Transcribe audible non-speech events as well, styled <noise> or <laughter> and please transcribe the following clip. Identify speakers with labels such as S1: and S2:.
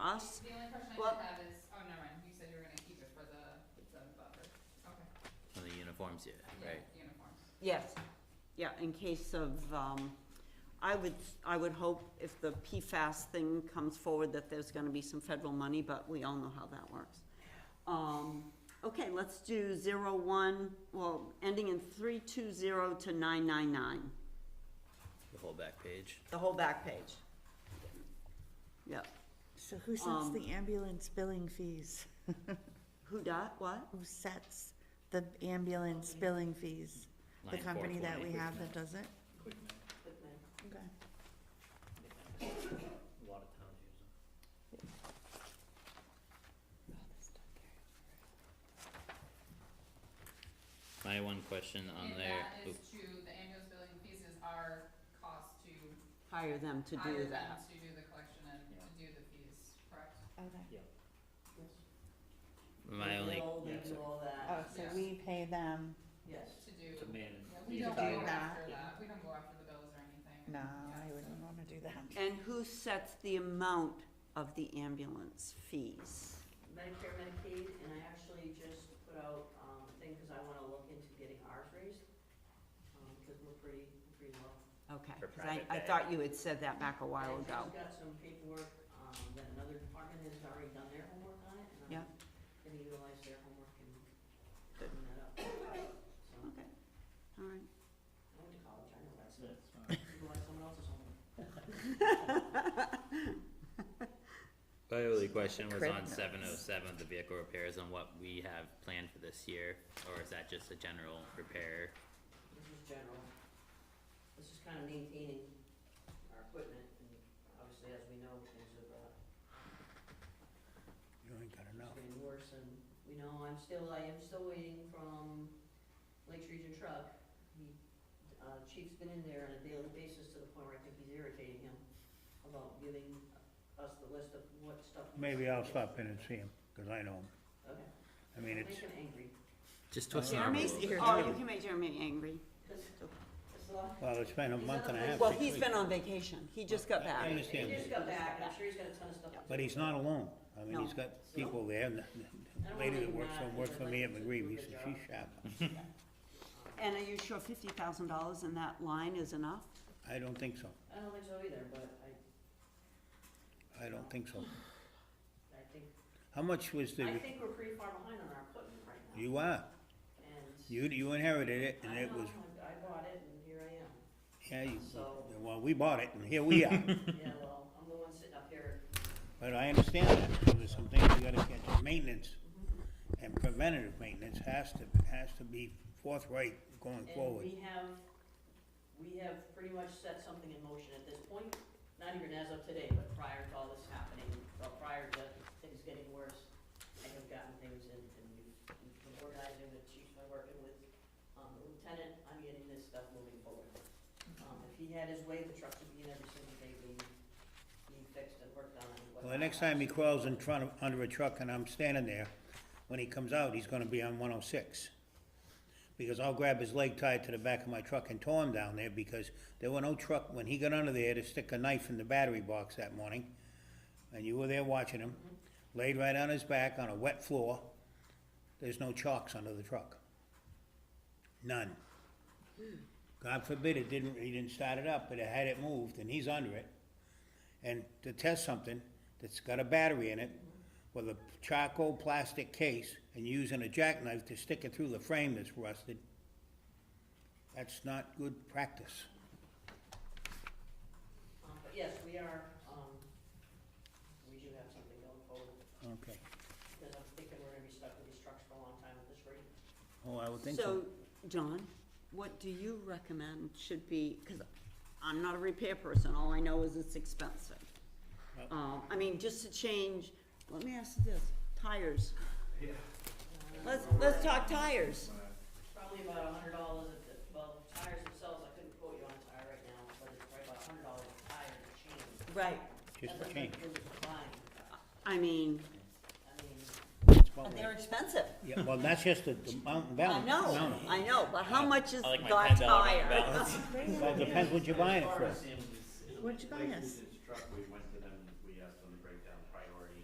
S1: costs.
S2: The only question I
S1: Well-
S2: should have is, oh, never mind, you said you were gonna keep it for the, the buffer, okay,
S3: On the uniforms, yeah,
S2: yeah,
S3: right.
S2: uniforms.
S1: Yes, yeah, in case of, um, I would, I would hope if the PFAS thing comes forward that there's gonna be some federal money, but we all know how that works. Um, okay, let's do zero one, well, ending in three two zero to nine nine nine,
S3: The whole back page.
S1: the whole back page. Yep,
S4: So who sets
S1: Um,
S4: the ambulance billing fees?
S1: who dot, what?
S4: Who sets the ambulance billing fees? The
S3: Line
S4: company that we
S3: 420.
S4: have that does it? Okay.
S5: A lot of towns use them.
S3: My one question on there,
S2: And that
S3: oop,
S2: is to, the ambulance billing fees is our cost to
S1: Hire them to do
S2: hire them
S1: that.
S2: to do the collection and to do the fees, correct?
S4: Okay.
S3: my only,
S5: Yeah, so-
S4: Oh, so
S2: Yeah.
S4: we pay them,
S2: To do,
S5: To manage.
S2: yeah,
S5: the
S2: we don't
S5: entire-
S2: go after
S4: Yeah.
S2: that, we don't go after the bills or anything.
S4: no,
S2: Yeah,
S4: I
S2: so-
S4: wouldn't wanna do that.
S1: And who sets the amount of the ambulance fees?
S6: Medicare, Medicaid, and I actually just put out, um, a thing, cause I wanna look into getting ours raised, um, cause we're pretty, pretty low.
S1: Okay,
S3: For
S1: 'cause I,
S3: private
S1: I
S3: pay.
S1: thought you had said that back a while
S6: And
S1: ago.
S6: I've got some paperwork, um, that another department has already done their homework on it, and
S1: Yeah.
S6: I'm gonna utilize their homework and
S1: Good.
S6: clean that up. So, I
S1: Okay, all right.
S6: went to college, I know that's,
S5: That's it, it's fine.
S6: utilize someone else's homework.
S3: my only question was
S4: Crib
S3: on
S4: notes.
S3: seven oh seven, the vehicle repairs and what we have planned for this year, or is that just a general repair?
S6: This is general. This is kind of maintaining our equipment, and obviously, as we know, things have, uh. You ain't got enough. Getting worse, and, you know, I'm still, I am still waiting from Lakes Region Truck. He, uh, chief's been in there on a daily basis to the point where I think he's irritating him about giving us the list of what stuff.
S7: Maybe I'll stop in and see him, 'cause I know him.
S6: Okay.
S7: I mean, it's,
S6: Make him angry,
S3: Just twisting our
S1: Jeremy's,
S3: rules.
S1: oh, you can make Jeremy angry.
S6: 'cause it's a lot.
S7: well, it's been a month and a half.
S1: Well,
S7: six
S1: he's been
S7: weeks.
S1: on vacation, he just got
S7: I
S1: back.
S6: He
S7: understand,
S6: just got back, and I'm sure he's got a ton of stuff. to
S7: but he's not alone. I mean, he's
S1: No.
S7: got people there, and the- the lady that works for, works for me at McGreevy, so she's sharp.
S1: And are you sure fifty thousand dollars in that line is enough?
S7: I don't think so.
S6: I don't think so either, but I,
S7: I don't think so.
S6: I think,
S7: How much was
S6: I
S7: the,
S6: think we're pretty far behind on our equipment right now.
S7: you are,
S6: And
S7: you, you inherited it, and
S6: I
S7: it
S6: know,
S7: was,
S6: I bought it and here I am.
S7: <laughs> yeah, you,
S6: So-
S7: well, we bought it, and here we are.
S6: Yeah, well, I'm the one sitting up here.
S7: But I understand that, there's some things you gotta catch, maintenance and preventative maintenance has to, has to be forthright going
S6: And
S7: forward.
S6: we have, we have pretty much set something in motion at this point, not even as of today, but prior to all this happening, or prior to things getting worse. I have gotten things in, and we've we've been organizing with chief, by working with, um, the lieutenant, I'm getting this stuff moving forward. Um, if he had his way, the trucks would be in every single day being, being fixed and worked on. and
S7: Well, the
S6: whatnot.
S7: next time he crawls in front of, under a truck and I'm standing there, when he comes out, he's gonna be on one oh six. Because I'll grab his leg tied to the back of my truck and tow him down there, because there were no truck, when he got under there to stick a knife in the battery box that morning, and you were there watching him, laid right on his back on a wet floor, there's no chocks under the truck. None. God forbid it didn't, he didn't start it up, but it had it moved, and he's under it and to test something that's got a battery in it with a charcoal plastic case and using a jackknife to stick it through the frame that's rusted, that's not good practice.
S6: Um, but yes, we are, um, we do have something going forward,
S7: Okay.
S6: because I'm thinking we're gonna be stuck with these trucks for a long time at this rate.
S7: Oh, I would think
S1: So,
S7: so.
S1: John, what do you recommend should be, cause I'm not a repair person, all I know is it's expensive.
S7: Yep.
S1: Um, I mean, just to change, let me ask you this, tires. Let's, let's talk tires.
S6: Probably about a hundred dollars at the, well, tires themselves, I couldn't quote you on a tire right now, but it's probably about a hundred dollars a tire to change.
S1: Right.
S7: Just
S1: uh,
S6: That's
S7: a change.
S6: what you're buying.
S1: I mean,
S6: I mean,
S7: It's about
S1: they're
S7: right.
S1: expensive.
S7: Yeah, well, that's just the, the mountain
S1: I
S7: balance.
S1: know,
S7: mountain.
S1: I know, but how much is
S3: I like my
S1: got
S3: ten dollar
S1: tire?
S3: balance.
S7: Well, it depends what you're buying it for.
S4: What'd you buy us?
S8: This truck we